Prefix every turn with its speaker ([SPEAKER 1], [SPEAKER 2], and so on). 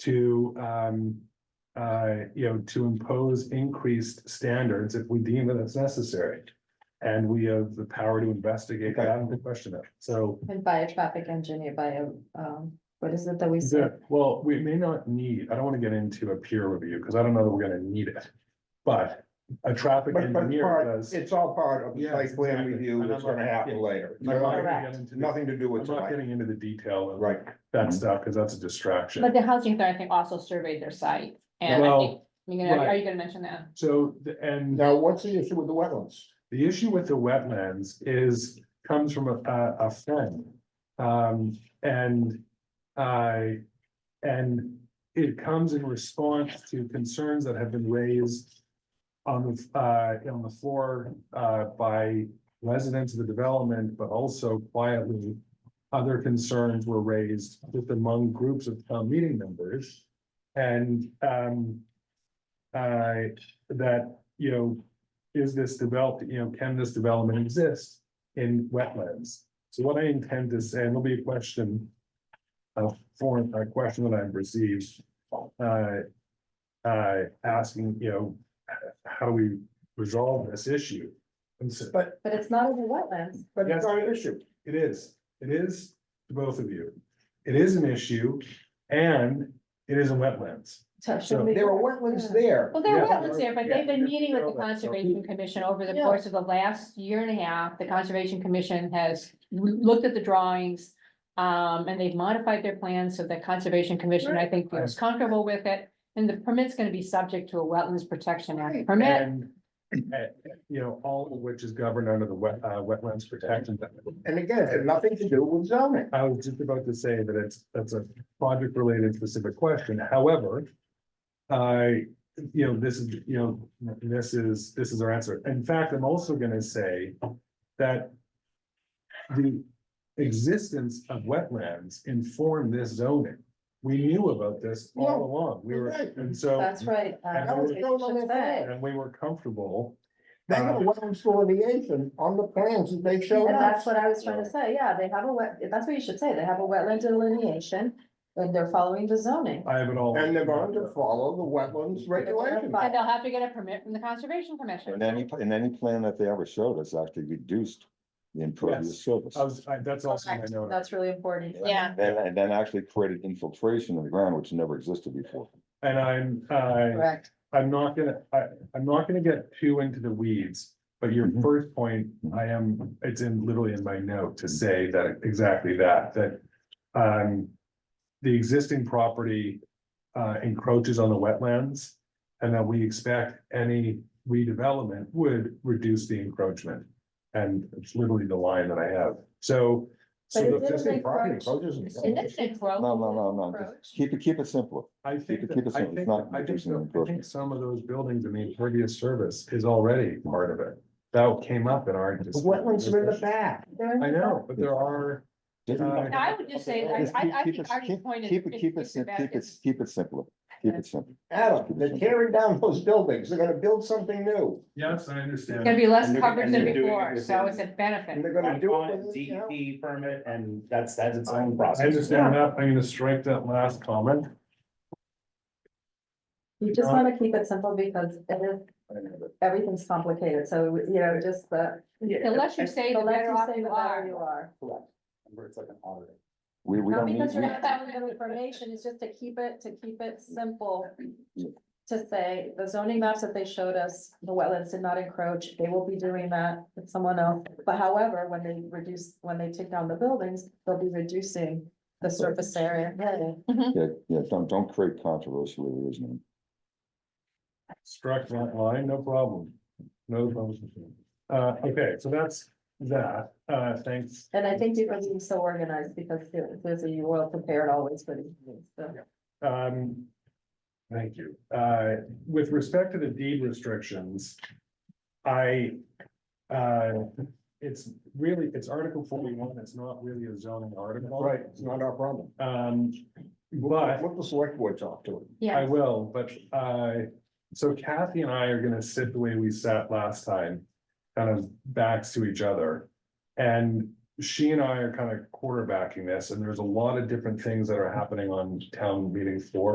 [SPEAKER 1] to, um, uh, you know, to impose increased standards if we deem that it's necessary. And we have the power to investigate that and to question it. So,
[SPEAKER 2] And by a traffic engineer, by a, um, what is it that we
[SPEAKER 1] yeah,
[SPEAKER 2] said?
[SPEAKER 1] well, we may not need, I don't want to get into a peer review because I don't know that we're going to need it. But a traffic
[SPEAKER 3] But, but
[SPEAKER 1] engineer
[SPEAKER 3] part,
[SPEAKER 1] does.
[SPEAKER 3] it's all part of the
[SPEAKER 1] Yes,
[SPEAKER 3] site plan
[SPEAKER 1] exactly.
[SPEAKER 3] review
[SPEAKER 1] And
[SPEAKER 3] that's
[SPEAKER 1] I'm not-
[SPEAKER 3] gonna happen
[SPEAKER 1] yeah.
[SPEAKER 3] later.
[SPEAKER 1] I'm not gonna
[SPEAKER 3] Nothing-
[SPEAKER 1] get
[SPEAKER 2] Correct.
[SPEAKER 1] into the-
[SPEAKER 3] Nothing to do
[SPEAKER 1] I'm
[SPEAKER 3] with
[SPEAKER 1] not
[SPEAKER 3] tonight,
[SPEAKER 1] getting into the detail of
[SPEAKER 3] right?
[SPEAKER 1] that stuff because that's a distraction.
[SPEAKER 4] But the housing authority, I think, also surveyed their site, and I
[SPEAKER 1] Well,
[SPEAKER 4] think, I mean, are-
[SPEAKER 1] right.
[SPEAKER 4] are you gonna mention that?
[SPEAKER 1] So, the- and
[SPEAKER 3] Now, what's the issue with the wetlands?
[SPEAKER 1] the issue with the wetlands is, comes from a, a, a friend. Um, and I, and it comes in response to concerns that have been raised on the, uh, on the floor, uh, by residents of the development, but also quietly, other concerns were raised with among groups of town meeting members. And, um, I, that, you know, is this developed, you know, can this development exist in wetlands? So what I intend to say, and it'll be a question, a foreign, a question that I've received, uh, uh, asking, you know, h- how do we resolve this issue? And so,
[SPEAKER 3] But,
[SPEAKER 2] But it's not in the wetlands.
[SPEAKER 3] but uh,
[SPEAKER 1] Yes.
[SPEAKER 3] it's not an issue.
[SPEAKER 1] it is, it is to both of you. It is an issue and it is in wetlands. So-
[SPEAKER 2] So should we-
[SPEAKER 3] There are wetlands there.
[SPEAKER 4] Well, there are
[SPEAKER 1] Yeah.
[SPEAKER 4] wetlands there, but
[SPEAKER 1] Yeah.
[SPEAKER 4] they've been meeting with the
[SPEAKER 1] Yeah.
[SPEAKER 4] Conservation Commission over the
[SPEAKER 2] Yeah.
[SPEAKER 4] course of the last year and a half. The Conservation Commission has loo- looked at the drawings. Um, and they've modified their plans, so the Conservation Commission, I think, feels comfortable with it. And the permit's gonna be subject to a Wetlands Protection Act
[SPEAKER 2] Right.
[SPEAKER 4] permit.
[SPEAKER 1] And, uh, you know, all of which is governed under the wet, uh, wetlands protection. Act.
[SPEAKER 3] And again, it had nothing to do with zoning.
[SPEAKER 1] I was just about to say that it's, that's a project related specific question, however. I, you know, this is, you know, this is, this is our answer. In fact, I'm also gonna say that. The existence of wetlands informed this zoning. We knew about this all
[SPEAKER 3] Yeah,
[SPEAKER 1] along. We were,
[SPEAKER 3] right.
[SPEAKER 1] and so,
[SPEAKER 2] That's right. uh,
[SPEAKER 1] And
[SPEAKER 2] that's
[SPEAKER 1] I was
[SPEAKER 2] what
[SPEAKER 3] told
[SPEAKER 2] we
[SPEAKER 3] on
[SPEAKER 2] should
[SPEAKER 3] the
[SPEAKER 2] say.
[SPEAKER 1] and we were comfortable.
[SPEAKER 3] They have a
[SPEAKER 1] Uh-huh.
[SPEAKER 3] wetlands delineation on the plans that they showed
[SPEAKER 2] And
[SPEAKER 3] us.
[SPEAKER 2] that's what I was trying to say, yeah, they have a wet, that's what you should say, they have a wetland delineation, and they're following the zoning.
[SPEAKER 1] I have it all.
[SPEAKER 3] And they're going to follow the wetlands regulations.
[SPEAKER 4] And they'll have to get a permit from the Conservation Commission.
[SPEAKER 5] And any, and any plan that they ever showed us actually reduced the impervious surface.
[SPEAKER 1] I was, I, that's also my
[SPEAKER 2] Correct.
[SPEAKER 1] note.
[SPEAKER 2] That's really important.
[SPEAKER 4] Yeah.
[SPEAKER 5] And, and then actually created infiltration in the ground, which never existed before.
[SPEAKER 1] And I'm, I,
[SPEAKER 2] Correct.
[SPEAKER 1] I'm not gonna, I, I'm not gonna get too into the weeds, but your
[SPEAKER 5] Mhm.
[SPEAKER 1] first point, I am, it's in literally in my note to say that exactly that, that. Um, the existing property uh encroaches on the wetlands. And that we expect any redevelopment would reduce the encroachment. And it's literally the line that I have, so. so
[SPEAKER 2] But it
[SPEAKER 1] the-
[SPEAKER 2] didn't
[SPEAKER 3] existing property
[SPEAKER 2] encroach.
[SPEAKER 3] approaches and-
[SPEAKER 4] And that's a growth.
[SPEAKER 5] No, no, no, no, just
[SPEAKER 2] Approach.
[SPEAKER 5] keep it, keep it simple.
[SPEAKER 1] I think,
[SPEAKER 5] it-
[SPEAKER 1] that-
[SPEAKER 5] keep it
[SPEAKER 1] I
[SPEAKER 5] simple. It's
[SPEAKER 1] think,
[SPEAKER 5] not
[SPEAKER 1] I think,
[SPEAKER 5] reducing
[SPEAKER 1] so. I think
[SPEAKER 5] encroachment.
[SPEAKER 1] some of those buildings, I mean, previous service is already part of it. That came up in our.
[SPEAKER 3] The wetlands are in the back.
[SPEAKER 2] They're in
[SPEAKER 1] I
[SPEAKER 2] the-
[SPEAKER 1] know, but there are,
[SPEAKER 5] Didn't-
[SPEAKER 4] I would just say, I,
[SPEAKER 5] Just keep-
[SPEAKER 4] I, I
[SPEAKER 5] keep
[SPEAKER 4] think
[SPEAKER 5] it-
[SPEAKER 4] Artie's point is.
[SPEAKER 5] Keep it, keep it,
[SPEAKER 4] is
[SPEAKER 5] sim-
[SPEAKER 4] about-
[SPEAKER 5] keep it,
[SPEAKER 4] is-
[SPEAKER 5] keep it simple. Keep it simple.
[SPEAKER 3] Adam, they're tearing down those buildings. They're gonna build something new.
[SPEAKER 1] yes, I
[SPEAKER 4] It's gonna
[SPEAKER 1] understand.
[SPEAKER 4] be less
[SPEAKER 6] And they're-
[SPEAKER 4] coverage
[SPEAKER 6] and
[SPEAKER 4] than
[SPEAKER 6] they're doing it
[SPEAKER 4] before, so
[SPEAKER 6] within-
[SPEAKER 4] it's a
[SPEAKER 3] And
[SPEAKER 4] benefit.
[SPEAKER 3] they're gonna do it.
[SPEAKER 6] on
[SPEAKER 3] with, you
[SPEAKER 1] E
[SPEAKER 3] know,
[SPEAKER 6] DEP E permit, and that's, that's its own
[SPEAKER 1] I
[SPEAKER 6] process.
[SPEAKER 1] understand that. I'm gonna strike that last comment.
[SPEAKER 2] You just wanna keep it simple because it is, everything's complicated, so, you know, just the.
[SPEAKER 4] The less you say,
[SPEAKER 2] The
[SPEAKER 4] the
[SPEAKER 2] less
[SPEAKER 4] better
[SPEAKER 2] you
[SPEAKER 4] off
[SPEAKER 2] say,
[SPEAKER 4] you
[SPEAKER 2] the better
[SPEAKER 4] are.
[SPEAKER 2] you are.
[SPEAKER 6] Where it's like an audit.
[SPEAKER 5] We, we
[SPEAKER 2] Not
[SPEAKER 5] don't need,
[SPEAKER 2] because you're
[SPEAKER 5] we-
[SPEAKER 2] not that good information, it's just to keep it, to keep it simple. To say, the zoning maps that they showed us, the wetlands did not encroach, they will be doing that with someone else. But however, when they reduce, when they take down the buildings, they'll be reducing the surface area.
[SPEAKER 5] yeah, yeah, don't, don't create controversy where there is none.
[SPEAKER 1] Struck that line, no problem. No problem. Uh, okay, so that's that. Uh, thanks.
[SPEAKER 2] And I thank you for being so organized because there- there's a, you will prepare it always for these things, so.
[SPEAKER 1] Um, thank you. Uh, with respect to the deed restrictions, I, uh, it's really, it's Article forty-one, it's not really a zoning article.
[SPEAKER 3] Right, it's not our problem.
[SPEAKER 1] Um, but
[SPEAKER 3] What the select board talk to it.
[SPEAKER 1] I
[SPEAKER 4] Yeah,
[SPEAKER 1] will, but, uh, so Kathy and I are gonna sit the way we sat last time, kind of backs to each other. And she and I are kind of quarterbacking this, and there's a lot of different things that are happening on town meeting floor.